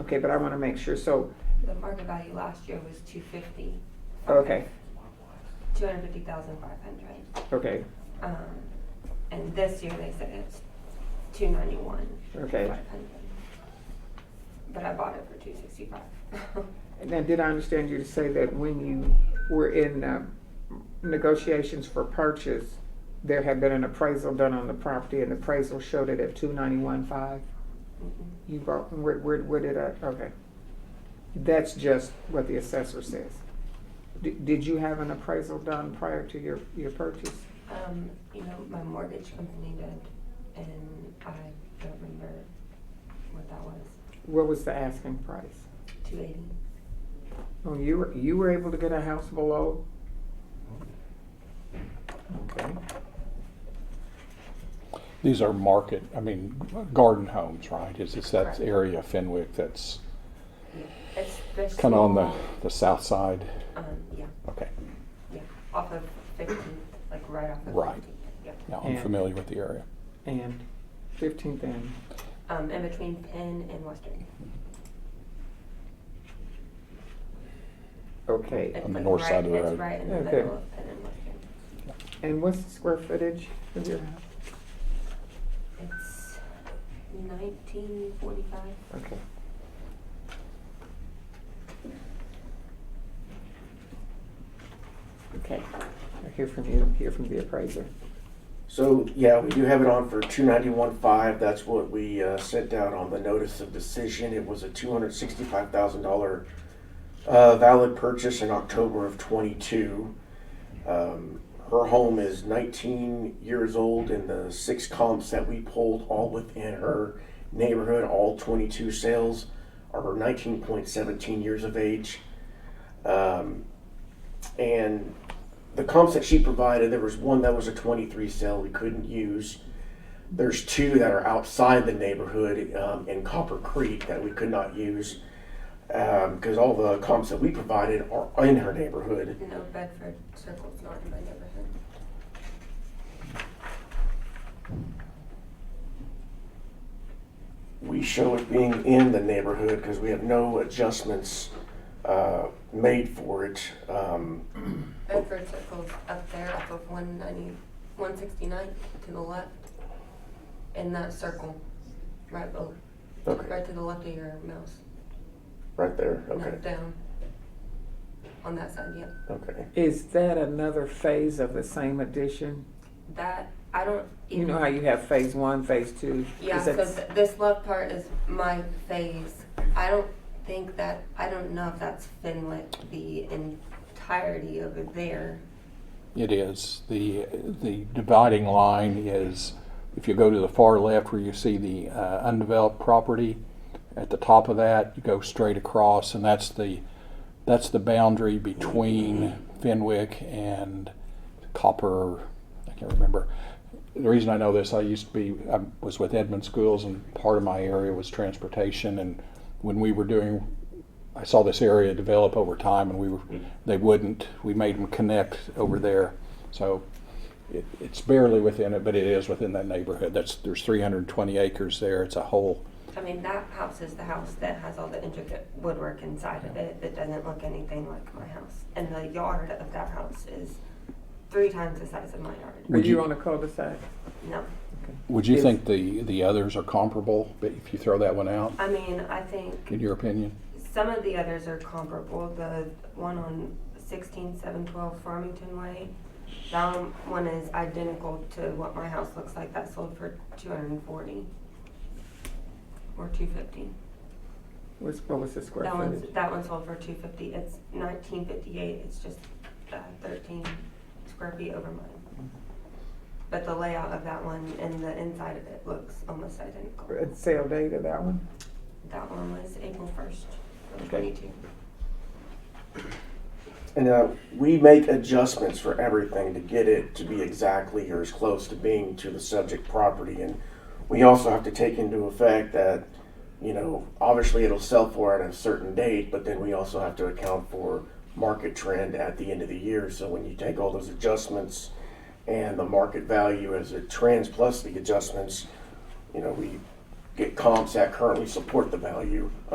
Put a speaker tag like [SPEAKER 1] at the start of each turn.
[SPEAKER 1] Okay, but I wanna make sure, so,
[SPEAKER 2] The market value last year was two fifty,
[SPEAKER 1] okay,
[SPEAKER 2] two hundred fifty thousand five hundred.
[SPEAKER 1] okay,
[SPEAKER 2] Um, and this year they said it's two ninety-one,
[SPEAKER 1] okay.
[SPEAKER 2] five hundred. But I bought it for two sixty-five.
[SPEAKER 1] Now, did I understand you to say that when you were in um, negotiations for purchase, there had been an appraisal done on the property and the appraisal showed it at two ninety-one five? You bought, where, where, where did I, okay. That's just what the assessor says. Did, did you have an appraisal done prior to your, your purchase?
[SPEAKER 2] Um, you know, my mortgage company did, and I don't remember what that was,
[SPEAKER 1] What was the asking price?
[SPEAKER 2] two eighty.
[SPEAKER 1] Oh, you were, you were able to get a house below? Okay,
[SPEAKER 3] These are market, I mean, garden homes, right? Is it's that
[SPEAKER 2] Correct.
[SPEAKER 3] area of Fenwick that's
[SPEAKER 2] It's the
[SPEAKER 3] kind of on the,
[SPEAKER 2] small,
[SPEAKER 3] the south side?
[SPEAKER 2] Um, yeah,
[SPEAKER 3] Okay,
[SPEAKER 2] yeah, off of fifteenth, like right off of
[SPEAKER 3] Right.
[SPEAKER 2] fifteenth, yeah.
[SPEAKER 3] yeah, I'm
[SPEAKER 1] Yeah.
[SPEAKER 3] familiar with the area.
[SPEAKER 1] and fifteenth and
[SPEAKER 2] Um, in between Penn and Western.
[SPEAKER 1] Okay,
[SPEAKER 2] It's
[SPEAKER 3] On the
[SPEAKER 2] like
[SPEAKER 3] north
[SPEAKER 2] right-
[SPEAKER 3] side of the road.
[SPEAKER 2] It's right in the
[SPEAKER 1] Okay.
[SPEAKER 2] middle of Penn and Western.
[SPEAKER 1] and what's the square footage of your house?
[SPEAKER 2] It's nineteen forty-five.
[SPEAKER 1] Okay. Okay, I hear from you, hear from the appraiser.
[SPEAKER 4] So, yeah, we do have it on for two ninety-one five, that's what we, uh, sent out on the notice of decision, it was a two hundred sixty-five thousand dollar uh, valid purchase in October of twenty-two. Um, her home is nineteen years old and the six comps that we pulled all within her neighborhood, all twenty-two sales are nineteen point seventeen years of age. Um, and the comps that she provided, there was one that was a 23 cell we couldn't use. There's two that are outside the neighborhood um, in Copper Creek that we could not use because all the comps that we provided are in her neighborhood.
[SPEAKER 2] No Bedford Circle's not in my neighborhood.
[SPEAKER 4] We show it being in the neighborhood because we have no adjustments uh, made for it. Um,
[SPEAKER 2] Bedford Circle's up there off of one ninety, one sixty-nine to the left. In that circle, right below,
[SPEAKER 4] okay,
[SPEAKER 2] right to the left of your mouse,
[SPEAKER 4] right there. Okay,
[SPEAKER 2] not down. On that side, yeah.
[SPEAKER 4] okay.
[SPEAKER 1] Is that another phase of the same addition?
[SPEAKER 2] That, I don't even.
[SPEAKER 1] You know how you have phase one, phase two?
[SPEAKER 2] Yeah,
[SPEAKER 1] Is
[SPEAKER 2] so
[SPEAKER 1] that-
[SPEAKER 2] th- this left part is my phase. I don't think that, I don't know if that's Finlick the entirety over there.
[SPEAKER 3] It is, the, the dividing line is, if you go to the far left where you see the uh, undeveloped property, at the top of that, you go straight across, and that's the, that's the boundary between Fenwick and Copper, I can't remember. The reason I know this, I used to be, I was with Edmund Schools, and part of my area was transportation, and when we were doing I saw this area develop over time, and we were, they wouldn't. We made them connect over there, so it, it's barely within it, but it is within that neighborhood. That's there's 320 acres there. It's a whole.
[SPEAKER 2] I mean, that house is the house that has all the intricate woodwork inside of it that doesn't look anything like my house. And the yard of that house is three times the size of my yard.
[SPEAKER 1] Were
[SPEAKER 3] Would
[SPEAKER 1] you
[SPEAKER 3] you-
[SPEAKER 1] on a cul-de-sac?
[SPEAKER 2] No,
[SPEAKER 3] Would you
[SPEAKER 1] If-
[SPEAKER 3] think the the others are comparable? But if you throw that one out,
[SPEAKER 2] I mean, I think
[SPEAKER 3] in your opinion,
[SPEAKER 2] Some of the others are comparable, the one on sixteen seven twelve Farmington Way. That one is identical to what my house looks like, that sold for two hundred and forty. Or two fifty.
[SPEAKER 1] What's, what was the square
[SPEAKER 2] That one's,
[SPEAKER 1] footage?
[SPEAKER 2] that one sold for two fifty, it's nineteen fifty-eight, it's just uh, thirteen square feet over mine. But the layout of that one and the inside of it looks almost identical.
[SPEAKER 1] And Sale date of that one?
[SPEAKER 2] That one was April first,
[SPEAKER 1] Okay.
[SPEAKER 2] twenty-two.
[SPEAKER 4] And uh, we make adjustments for everything to get it to be exactly or as close to being to the subject property. And we also have to take into effect that, you know, obviously it'll sell for at a certain date, but then we also have to account for market trend at the end of the year. So when you take all those adjustments and the market value as it trends plus the adjustments, you know, we get comps that currently support the value of